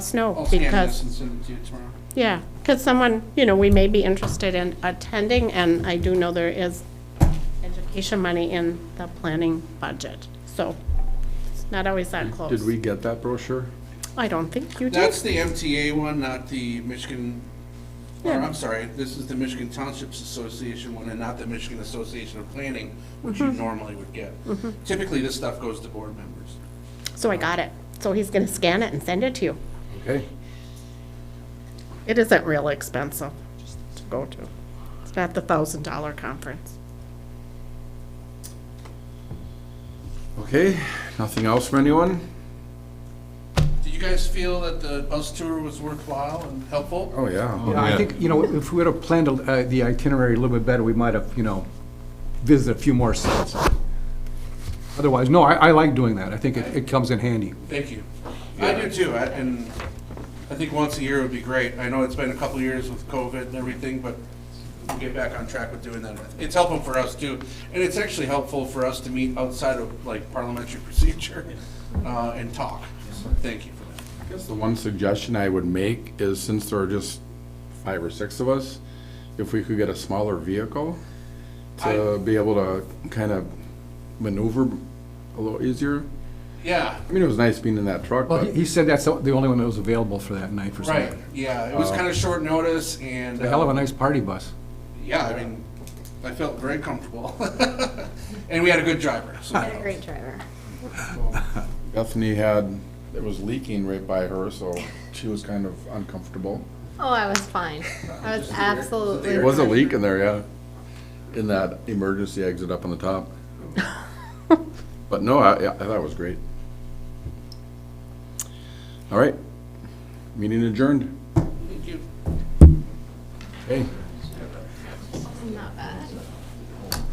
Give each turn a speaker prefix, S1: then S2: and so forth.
S1: snow
S2: I'll scan this
S1: because,
S2: and send it to you tomorrow.
S1: yeah, because someone, you know, we may be interested in attending, and I do know there is education money in the planning budget, so it's not always that close.
S3: Did we get that brochure?
S1: I don't think you did.
S2: That's the MTA one, not the Michigan, or
S1: Yeah.
S2: I'm sorry, this is the Michigan Townships Association one and not the Michigan Association of Planning, which
S1: Mm-hmm.
S2: you normally would get. Typically, this stuff goes to board members.
S1: So I got it. So he's going to scan it and send it to you.
S3: Okay.
S1: It isn't real expensive to go to. It's not the thousand dollar conference.
S3: Okay, nothing else from anyone?
S2: Did you guys feel that the bus tour was worthwhile and helpful?
S3: Oh, yeah.
S4: Yeah, I think, you know, if we would have planned uh, the itinerary a little bit better, we might have, you know, visited a few more sites. Otherwise, no, I, I like doing that. I think it, it comes in handy.
S2: Thank you. I do too, I- and I think once a year would be great. I know it's been a couple of years with COVID and everything, but we'll get back on track with doing that. It's helpful for us too, and it's actually helpful for us to meet outside of like parliamentary procedure uh, and talk. So Thank you for that.
S3: I guess the one suggestion I would make is since there are just five or six of us, if we could get a smaller vehicle to be able to kind of maneuver a little easier.
S2: Yeah,
S3: I mean, it was nice being in that truck,
S4: Well,
S3: but
S4: he he said that's the only one that was available for that night for some.
S2: right, yeah, it was kind of short notice and.
S4: Uh, A hell of
S2: uh,
S4: a nice party bus.
S2: Yeah, I mean, I felt very comfortable. And we had a good driver, so.
S5: Had a great driver.
S3: Bethany had, it was leaking right by her, so she was kind of uncomfortable.
S5: Oh, I was fine. I was absolutely.
S3: There was a
S5: fine.
S3: leak in there, yeah, in that emergency exit up on the top. But no, I, I thought it was great. All right, meeting adjourned.
S2: Thank you.
S3: Hey,
S5: Not bad.